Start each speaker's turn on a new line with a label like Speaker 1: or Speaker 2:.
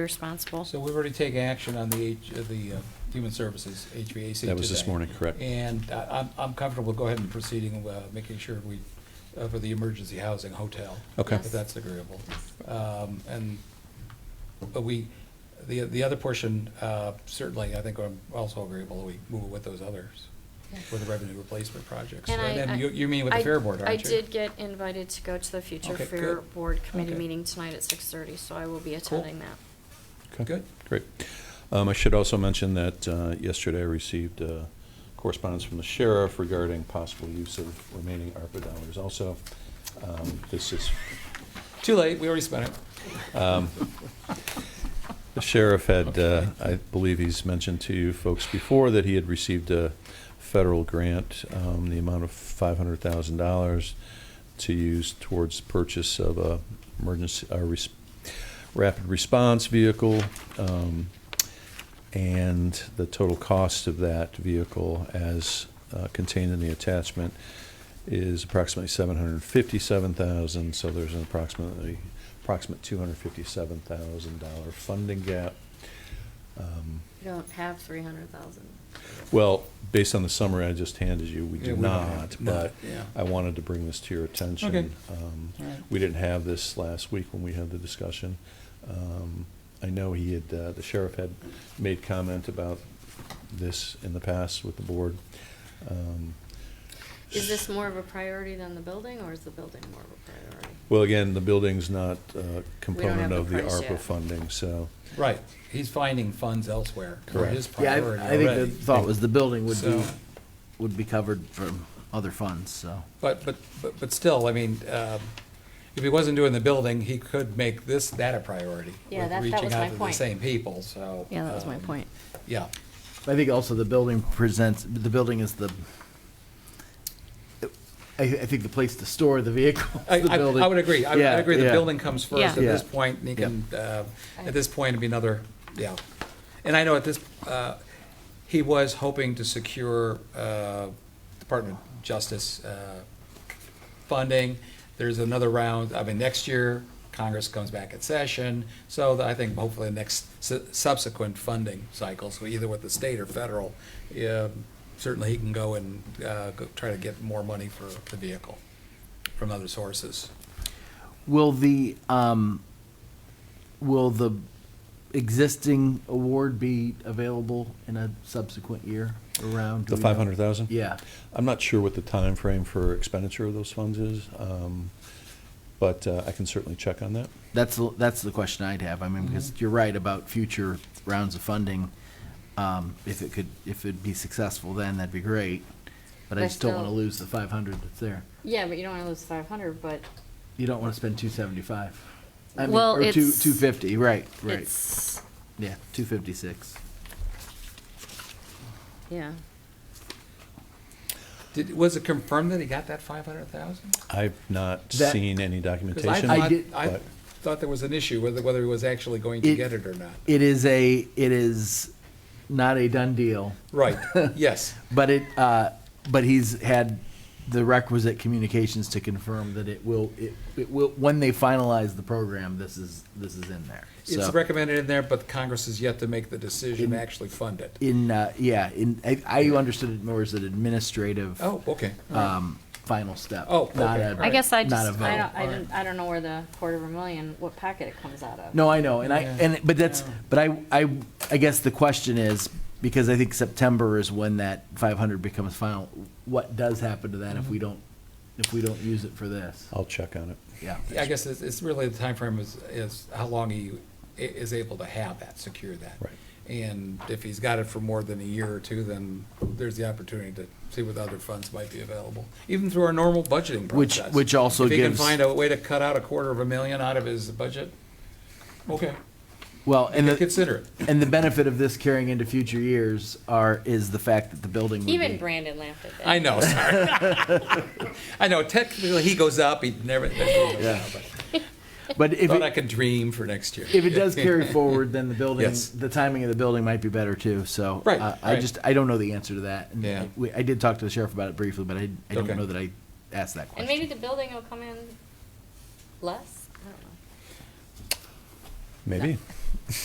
Speaker 1: responsible.
Speaker 2: So we've already taken action on the, H- uh, the uh, Human Services HVAC today.
Speaker 3: That was this morning, correct?
Speaker 2: And I- I'm, I'm comfortable, go ahead and proceeding, uh, making sure we, uh, for the emergency housing hotel.
Speaker 3: Okay.
Speaker 2: If that's agreeable. Um, And, but we, the, the other portion, uh, certainly, I think I'm also agreeable, we move with those others, with the revenue replacement projects.
Speaker 1: And I-
Speaker 2: then you, you mean with the
Speaker 1: I-
Speaker 2: Fair Board,
Speaker 1: I
Speaker 2: aren't you?
Speaker 1: did get invited to go to the Future
Speaker 2: Okay,
Speaker 1: Fair
Speaker 2: good.
Speaker 1: Board Committee
Speaker 2: Okay.
Speaker 1: meeting tonight at six thirty, so I will be attending that.
Speaker 3: Okay.
Speaker 2: Good.
Speaker 3: Great. Um, I should also mention that uh, yesterday I received uh, correspondence from the sheriff regarding possible use of remaining ARPA dollars also. Um, This is,
Speaker 2: Too late, we already spent it.
Speaker 3: um, the sheriff had, uh, I believe he's mentioned to you folks before that he had received a federal grant, um, the amount of $500,000 to use towards purchase of a emergency, uh, res- rapid response vehicle. um, And the total cost of that vehicle as uh, contained in the attachment is approximately seven hundred and fifty-seven thousand, so there's an approximately, approximate two hundred and fifty-seven thousand dollar funding gap. Um,
Speaker 1: You don't have three hundred thousand.
Speaker 3: Well, based on the summary I just handed you, we
Speaker 2: Yeah,
Speaker 3: do
Speaker 2: we don't have-
Speaker 3: not,
Speaker 2: no,
Speaker 3: but
Speaker 2: yeah.
Speaker 3: I wanted to bring this to your
Speaker 2: Okay.
Speaker 3: attention. Um,
Speaker 2: All right.
Speaker 3: We didn't have this last week when we had the discussion. Um, I know he had, uh, the sheriff had made comment about this in the past with the board. Um,
Speaker 1: Is this more of a priority than the building, or is the building more of a priority?
Speaker 3: Well, again, the building's not a
Speaker 1: have
Speaker 3: component
Speaker 1: the
Speaker 3: of the
Speaker 1: price
Speaker 3: ARPA
Speaker 1: yet.
Speaker 3: funding, so,
Speaker 2: Right, he's finding funds elsewhere. for
Speaker 3: Correct.
Speaker 2: his
Speaker 4: Yeah,
Speaker 2: priority
Speaker 4: I, I think the
Speaker 2: already.
Speaker 4: thought was the building would be,
Speaker 2: So-
Speaker 4: would be covered from other funds, so.
Speaker 2: But, but, but, but still, I mean, um, if he wasn't doing the building, he could make this, that a priority.
Speaker 1: Yeah, that-
Speaker 2: with
Speaker 1: that was my
Speaker 2: Reaching out to the
Speaker 1: point.
Speaker 2: same people, so.
Speaker 1: Yeah, that was my
Speaker 2: um,
Speaker 1: point.
Speaker 2: Yeah,
Speaker 4: I think also the building presents, the building is the, I, I think the place to store the vehicle.
Speaker 2: I,
Speaker 4: the
Speaker 2: I
Speaker 4: building.
Speaker 2: I would agree, I would
Speaker 4: Yeah,
Speaker 2: agree, the
Speaker 4: yeah.
Speaker 2: building comes first
Speaker 1: Yeah.
Speaker 2: at this
Speaker 4: Yeah.
Speaker 2: point, and he
Speaker 4: Yeah.
Speaker 2: can, uh, at this point, it'd be another, yeah. And I know at this, uh, he was hoping to secure uh, Department of Justice uh, funding. There's another round, I mean, next year, Congress comes back at session. So that I think hopefully the next su- subsequent funding cycles, so either with the state or federal, yeah, certainly he can go and uh, go- try to get more money for the vehicle from other sources.
Speaker 4: Will the, um, will the existing award be available in a subsequent year around?
Speaker 3: the five hundred thousand?
Speaker 4: Yeah,
Speaker 3: I'm not sure what the time frame for expenditure of those funds is, um, but uh, I can certainly check on that.
Speaker 4: that's, the- that's the question I'd have. I mean,
Speaker 1: Mm-hmm.
Speaker 4: because you're right about future rounds of funding. Um, if it could, if it'd be successful then, that'd be great. But I
Speaker 1: But
Speaker 4: just don't want to
Speaker 1: still-
Speaker 4: lose the five hundred that's there.
Speaker 1: Yeah, but you don't wanna lose five hundred, but
Speaker 4: You don't want to spend two seventy-five.
Speaker 1: Well,
Speaker 4: Or two,
Speaker 1: it's-
Speaker 4: two fifty, right, right.
Speaker 1: it's,
Speaker 4: Yeah, two fifty-six.
Speaker 1: yeah.
Speaker 2: Did, was it confirmed that he got that five hundred thousand?
Speaker 3: I've not
Speaker 4: That-
Speaker 3: seen any
Speaker 2: Because I
Speaker 3: documentation.
Speaker 4: I
Speaker 2: thought,
Speaker 4: did-
Speaker 2: I
Speaker 3: but-
Speaker 2: thought there was an issue whether, whether he was actually going to
Speaker 4: It-
Speaker 2: get it or not.
Speaker 4: It is a, it is not a done deal,
Speaker 2: Right, yes.
Speaker 4: but it, uh, but he's had the requisite communications to confirm that it will, it, it will, when they finalize the program, this is, this is in there.
Speaker 2: It's
Speaker 4: So,
Speaker 2: recommended in there, but Congress has yet to make the decision to actually fund it.
Speaker 4: In, uh, yeah, in, I, I understood it more as an administrative,
Speaker 2: Oh, okay.
Speaker 4: um, final step.
Speaker 2: Oh, okay,
Speaker 4: not a-
Speaker 2: all right.
Speaker 1: I guess I
Speaker 4: not a
Speaker 1: just, I
Speaker 4: vote.
Speaker 1: don't, I didn't, I don't know where the quarter of a million, what pocket it comes out of.
Speaker 4: No, I know, and I,
Speaker 2: Yeah.
Speaker 4: and, but that's,
Speaker 2: Yeah.
Speaker 4: but I, I, I guess the question is, because I think September is when that five hundred becomes final, what does happen to that if we
Speaker 2: Mm-hmm.
Speaker 4: don't, if we don't use it for this?
Speaker 3: I'll check on it.
Speaker 4: Yeah.
Speaker 2: I guess it's, it's really the timeframe is, is how long he i- is able to have that, secure that.
Speaker 3: Right.
Speaker 2: And if he's got it for more than a year or two, then there's the opportunity to see what other funds might be available, even through our normal budgeting
Speaker 4: Which-
Speaker 2: process.
Speaker 4: which also
Speaker 2: If he can
Speaker 4: gives-
Speaker 2: find a way to cut out a quarter of a million out of his budget, okay,
Speaker 4: Well, and the,
Speaker 2: consider it.
Speaker 4: and the benefit of this carrying into future years are, is the fact that the building would be.
Speaker 1: Even Brandon laughed at that.
Speaker 2: I know, sorry. I know, technically, he goes up, he never,
Speaker 4: Yeah.
Speaker 2: but
Speaker 4: But if
Speaker 2: thought I
Speaker 4: it,
Speaker 2: could dream for next year.
Speaker 4: if it does carry forward, then the building,
Speaker 2: Yes.
Speaker 4: the timing of the building might be better too, so.
Speaker 2: Right,
Speaker 4: uh, I
Speaker 2: right.
Speaker 4: just, I don't know the answer to that. and
Speaker 2: Yeah.
Speaker 4: We, I did talk to the sheriff about it briefly, but I, I
Speaker 2: Okay.
Speaker 4: don't know that I asked that question.
Speaker 1: And maybe the building will come in less? I don't know.
Speaker 3: Maybe.